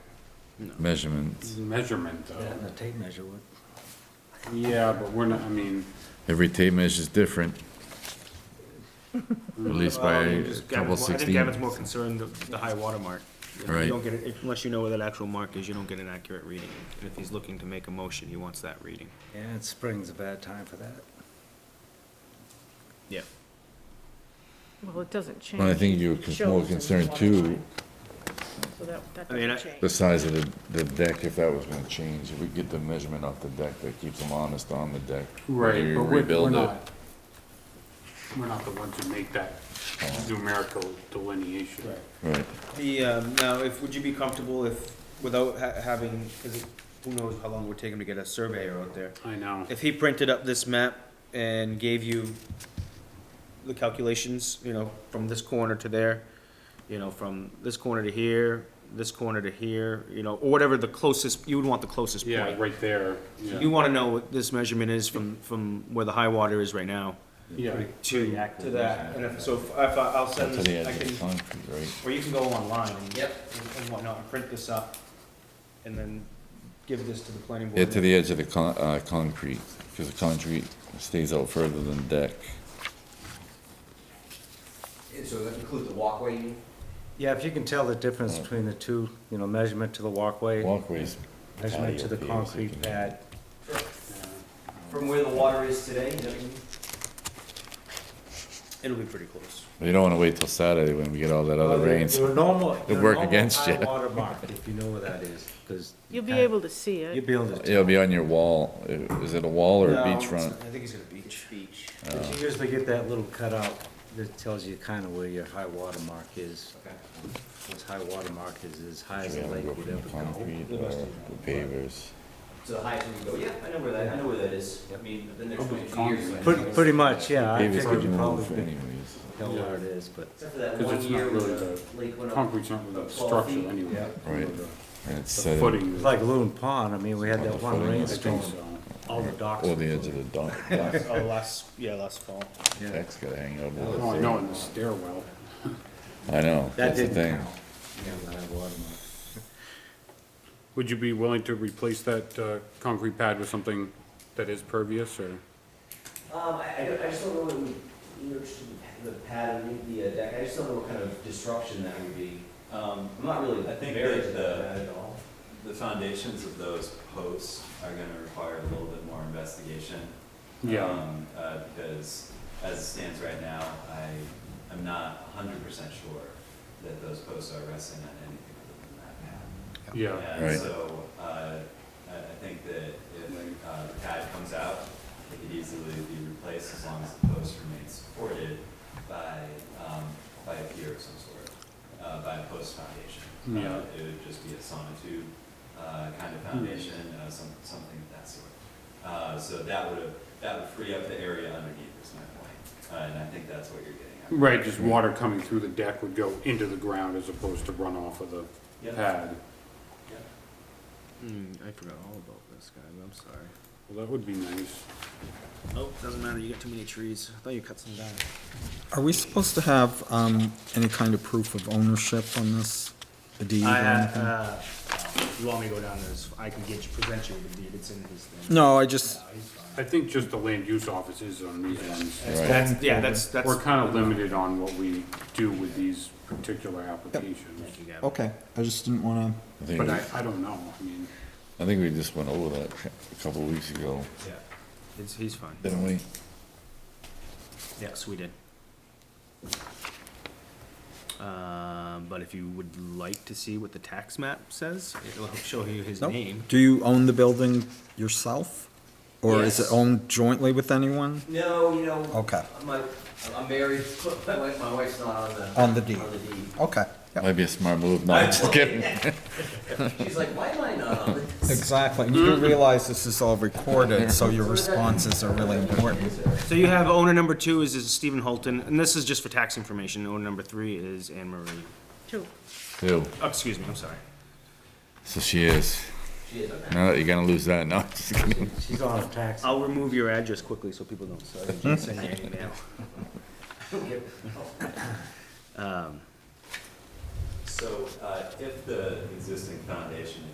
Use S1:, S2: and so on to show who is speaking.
S1: measurements.
S2: It's a measurement
S3: Yeah, and
S2: though.
S3: the tape measure would.
S2: Yeah, but we're not, I mean,
S1: Every tape measure is different. Released by
S4: Um,
S1: a
S4: just
S1: couple
S4: Gavin's more- I think Gavin's more
S1: sixteen.
S4: concerned the, the high water mark. If you
S1: Right.
S4: don't get it- Unless you know where that actual mark is, you don't get an accurate reading. And if he's looking to make a motion, he wants that reading.
S3: Yeah, and spring's a bad time for that.
S1: Oh.
S4: Yeah.
S5: Well, it doesn't change.
S1: Well, I think you were
S5: It
S1: con-
S5: shows
S1: more
S5: in the
S1: concerned
S5: water
S1: too-
S5: line. So that, that
S4: I mean,
S5: doesn't
S4: I-
S1: The
S5: change.
S1: size of the, the deck, if that was gonna change, if we get the measurement off the deck, that keeps them honest on the deck. whether
S2: right,
S1: you
S2: but we're, we're
S1: rebuild it.
S2: not, we're not the ones who make that
S1: Oh.
S2: numerical delineation.
S1: Right,
S4: The, um, now, if, would you be comfortable if, without ha- having, cause it- who knows how long it would take him to get a surveyor out there?
S2: I know.
S4: If he printed up this map and gave you the calculations, you know, from this corner to there, you know, from this corner to here, this corner to here, you know, or whatever the closest, you would want the closest point.
S2: Yeah, right there,
S4: You
S2: yeah.
S4: wanna know what this measurement is from, from where the high water is right now
S2: Yeah,
S4: to, to that, and if, so if I, I'll send
S1: to the
S4: this,
S1: edge
S4: I
S1: of the
S4: can,
S1: concrete, right?
S4: or you can go online and, and whatnot, and print this up, and then give this to the planning board.
S1: Yeah, to the edge of the con, uh, concrete, cause the concrete stays out further than the deck.
S6: And so that includes the walkway, you mean?
S3: Yeah, if you can tell the difference between the two, you know, measurement to the walkway,
S1: Walkways.
S3: measurement to the
S1: patio piers, you
S3: concrete
S1: can-
S3: pad.
S6: from where the water is today, is that
S3: Mm-hmm.
S6: what you mean?
S4: It'll be pretty close.
S1: You don't wanna wait till Saturday when we get all that other
S4: Oh,
S1: rains.
S3: Your normal, your
S1: work
S3: normal
S1: against
S3: high
S1: you.
S3: water mark, if you know where that is, because.
S5: You'll be able to see it.
S3: You'll be able to.
S1: It'll be on your wall, is it a wall or a beachfront?
S4: I think he's gonna beach. Beach.
S3: But you usually get that little cutout that tells you kind of where your high water mark is. What's high water mark is as high as
S1: We
S3: the
S1: have
S3: lake
S1: to go
S3: would
S1: from
S3: ever
S1: the
S3: go.
S1: concrete or the pavers.
S6: So the highest we can go, yeah, I know where that, I know where that is. I mean, I've been there
S2: Probably
S6: twenty-two years. so I
S3: Pretty,
S6: know.
S3: pretty much, yeah,
S1: Pavers
S3: I figured you
S1: couldn't
S3: probably
S1: move
S3: could
S1: anyways.
S3: tell where it is, but.
S6: Except for that
S2: 'Cause
S6: one
S2: it's
S6: year
S2: not
S6: where
S2: really
S6: the lake went up.
S2: concrete's not really a
S6: Twelve
S2: structure
S6: feet.
S2: anyway.
S1: Right, and it's
S2: The
S1: set in,
S2: footing,
S3: It's
S2: I
S3: like Loon Pond, I mean, we had
S1: On the
S3: that one
S1: footing.
S3: rainstorm,
S2: think so.
S3: all the docks.
S1: or
S3: were
S1: the edge
S3: flooded.
S1: of the dock. dock.
S4: Oh, last, yeah, last fall.
S3: Yeah.
S1: Deck's gotta hang over.
S2: Oh,
S1: with
S2: I know, in the stairwell.
S1: it. I know,
S3: That
S1: that's the
S3: didn't
S1: thing.
S3: count. Yeah, the high water mark.
S2: Would you be willing to replace that, uh, concrete pad with something that is pervious or?
S6: Um, I, I don't- I just don't know what we, you know, just the the pad and the uh, deck, I just don't know what kind of disruption that would be. Um, I'm not really
S7: I think
S6: very
S7: that
S6: into
S7: the-
S6: that at all.
S7: The foundations of those posts are gonna require a little bit more investigation. um, Uh, because as it stands right now, I am not hundred percent sure that those posts are resting on anything other than that pad.
S2: Yeah,
S1: Right.
S7: And so, uh, I, I think that if, uh, the pad comes out, it could easily be replaced as long as the post remains supported by, um, by a pier of some sort, uh, by a post foundation. Uh,
S2: Yeah.
S7: It would just be a sonotube, uh, kind of foundation, uh, some, something of that sort. Uh, so that would have, that would free up the area underneath is my point, uh, and I think that's what you're getting at.
S2: right, just water coming through the deck would go into the ground as opposed to run off of the
S7: Yeah.
S2: pad.
S7: Yeah.
S4: Hmm, I forgot all about this guy, I'm sorry.
S2: Well, that would be nice.
S4: Oh, doesn't matter, you got too many trees. I thought you cut some down.
S8: Are we supposed to have um, any kind of proof of ownership on this? A deed or
S4: I, had,
S8: anything?
S4: uh, you want me to go down there, so I can get you, present you with the deed, it's in his thing.
S8: No, I just,
S4: No, he's fine.
S2: I think just the land use office is on these ones.
S4: That's-
S1: Right.
S4: That's, yeah, that's, that's.
S2: We're kind of limited on what we do with these particular applications.
S4: Thank you, Gavin.
S8: okay, I just didn't want
S1: I think,
S2: But
S1: we-
S2: I, I don't know, I mean,
S1: I think we just went over that a couple weeks ago,
S4: Yeah, it's, he's fine.
S1: didn't we?
S4: Yes, we did. Um, but if you would like to see what the tax map says, it'll show you his
S8: to. Nope.
S4: name.
S8: Do you own the building yourself? Or is it
S6: Yes.
S8: owned jointly with anyone?
S6: No, you know.
S8: Okay.
S6: My, I'm married, my wife, my wife's not on the.
S8: On the deed.
S6: On the E. deed.
S8: Okay, yeah,
S1: Might be a smart move, no, I'm just kidding.
S6: She's like, why am I not on the
S8: exactly. And You realize this is all recorded, so your responses are really important.
S4: So you have owner number two is, is Stephen Holton, and this is just for tax information. Owner number three is Anne Marie.
S5: Two.
S1: Ew,
S4: Oh, excuse me, I'm sorry.
S1: so she is,
S6: She is, okay.
S1: now that you're gonna lose that, no, I'm just kidding.
S3: She's on a tax.
S4: I'll remove your address quickly so people don't so I can just send you an email.
S7: So, uh, if the existing foundation